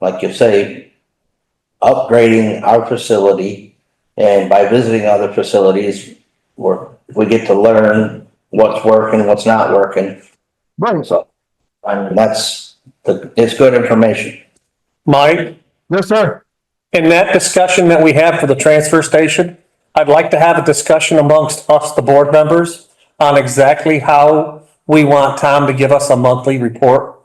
like you say, upgrading our facility. And by visiting other facilities, we're, we get to learn what's working, what's not working. Right. So, I mean, that's, the- it's good information. Mike, Yes, sir. in that discussion that we have for the transfer station, I'd like to have a discussion amongst us, the board members, on exactly how we want Tom to give us a monthly report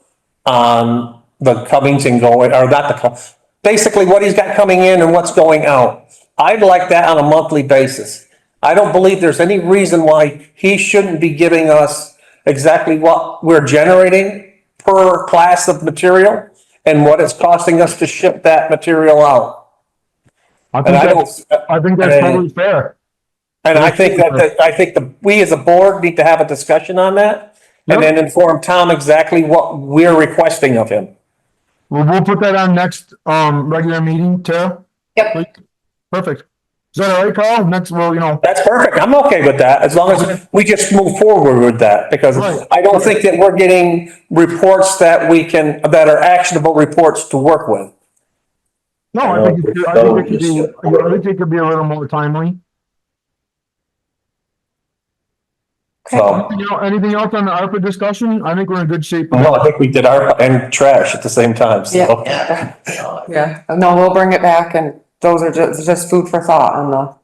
on the comings and going, or not the, com- basically what he's got coming in and what's going out. I'd like that on a monthly basis. I don't believe there's any reason why he shouldn't be giving us exactly what we're generating per class of material and what it's costing us to ship that material out. I And think I that's, don't, I think that's and- totally fair. and I think that, that- I think the, we as a board need to have a discussion on that and then inform Tom exactly what we're requesting of him. Well, we'll put that on next, um, regular meeting, Tara? Yep. Perfect. Is that all right, Carl? Next, well, you know, That's perfect. I'm okay with that, as long as we just move forward with that, because Right. I don't think that we're getting reports that we can, that are actionable reports to work with. no, I think, it could- I think it could be, I think it could be a little more timely. So, Anything el- anything else on the ARPA discussion? I think we're in good shape. no, I think we did our, and trash at the same time, so. Yeah. Yeah, no, we'll bring it back and those are just, just food for thought on the,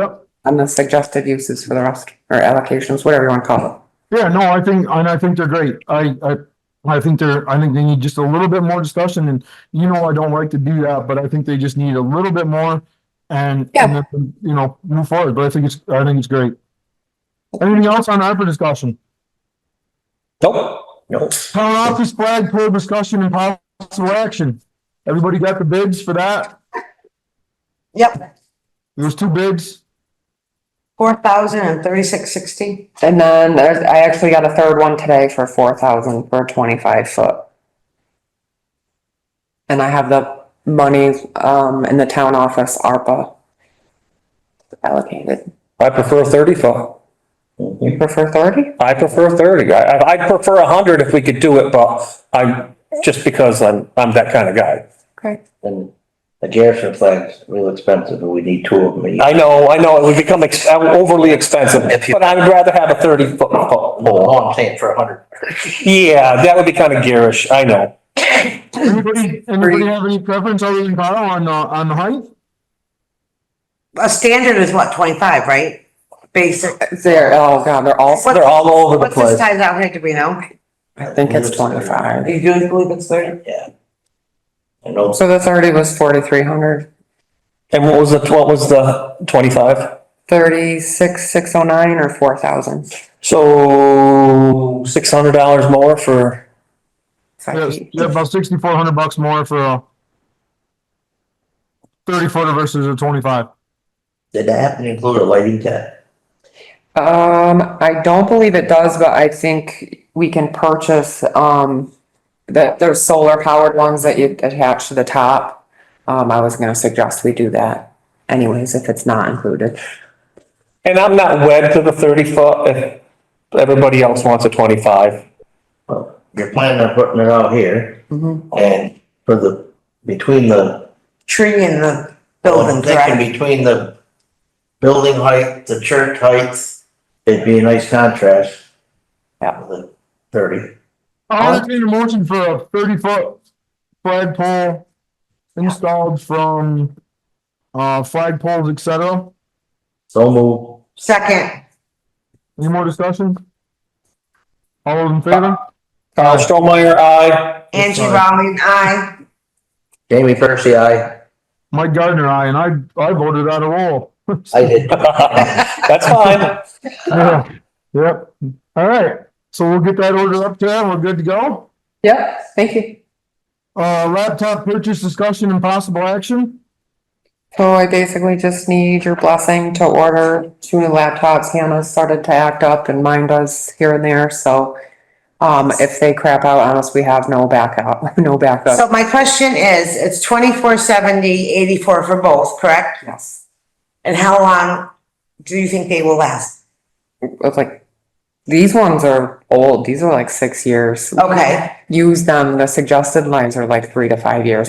Yep. on the suggested uses for the rest, or allocations, whatever you wanna call it. Yeah, no, I think, and I think they're great. I, I, I think they're, I think they need just a little bit more discussion and you know, I don't like to do that, but I think they just need a little bit more and, and then, you know, move forward, but I think it's, I think it's great. Anything else on ARPA discussion? Nope. Nope. Town office flag pole discussion and possible action. Everybody got the bids for that? Yep, There was two bids. four thousand and thirty-six sixty. And then there's, I actually got a third one today for four thousand for a twenty-five foot. And I have the money, um, in the town office, ARPA. Allocated, I prefer thirty-five. you prefer thirty? I prefer thirty. I, I- I'd prefer a hundred if we could do it, but I'm, just because I'm, I'm that kind of guy. Okay. And the Garrison flag's real expensive, and we need two of them. I know, I know, it would become ex- overly expensive, but I'd rather have a thirty foot pole. Oh, I'm saying for a hundred. Yeah, that would be kind of garish, I know. Anybody, anybody have any preference other than Kyle on, uh, on the height? A standard is what, twenty-five, right? Basic. They're, oh god, they're all, They're all over the What's the place. size out here, do we know? I think it's twenty-five. You do believe it's thirty? Yeah. I know, So the thirty was forty-three hundred, And what was the, what was the twenty-five? thirty-six, six oh nine or four thousand? So six hundred dollars more for, Yes, yeah, about sixty-four hundred bucks more for a thirty footer versus a twenty-five. did that happen to include a lighting tech? Um, I don't believe it does, but I think we can purchase, um, that there's solar powered ones that you attach to the top. Um, I was gonna suggest we do that anyways, if it's not included. and I'm not wed to the thirty foot if everybody else wants a twenty-five. Well, you're planning on putting it out here, Mhm. and for the, between the, Tree in the I'm building, correct? thinking between the building height, the church heights, it'd be a nice contrast. Yeah. with the Thirty. I'll entertain a motion for a thirty foot flag pole installed from, uh, flag poles, et cetera. So move. Second, Any more discussion? All those in favor? Carl Strohmeyer, aye. Angie Sorry. Rowling, aye. Jamie Percy, I. Mike Gardner, I, and I, I voted out of all. I did. That's fine. Yeah, yep. All right, so we'll get that order up there. We're good to go. Yep, thank you. Uh, laptop purchase discussion and possible action. So I basically just need your blessing to order two new laptops. Hannah's started to act up and mine does here and there, so. Um, if they crap out on us, we have no backup, no So backup. my question is, it's twenty-four seventy, eighty-four for both, correct? Yes. And how long do you think they will last? it's like these ones are old. These are like six years. Okay. Use them. The suggested lines are like three to five years.